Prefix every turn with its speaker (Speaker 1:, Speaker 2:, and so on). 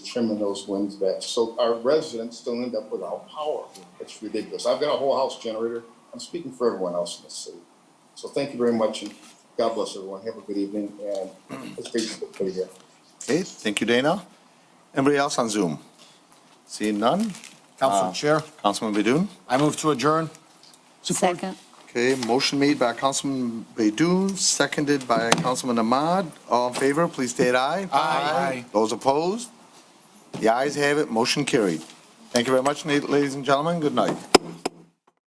Speaker 1: trimming those winds back. So our residents still end up without power. It's ridiculous. I've got a whole house generator. I'm speaking for everyone else in the city. So thank you very much and God bless everyone. Have a good evening and it's Facebook for you.
Speaker 2: Okay, thank you, Dana. Anybody else on Zoom? Seeing none?
Speaker 3: Council Chair,
Speaker 2: Councilman Bedun?
Speaker 3: I move to adjourn.
Speaker 4: Second.
Speaker 2: Okay, motion made by Councilman Bedun, seconded by Councilman Ahmad. All in favor, please state aye.
Speaker 3: Aye.
Speaker 2: Those opposed? The ayes have it, motion carried. Thank you very much, na- ladies and gentlemen. Good night.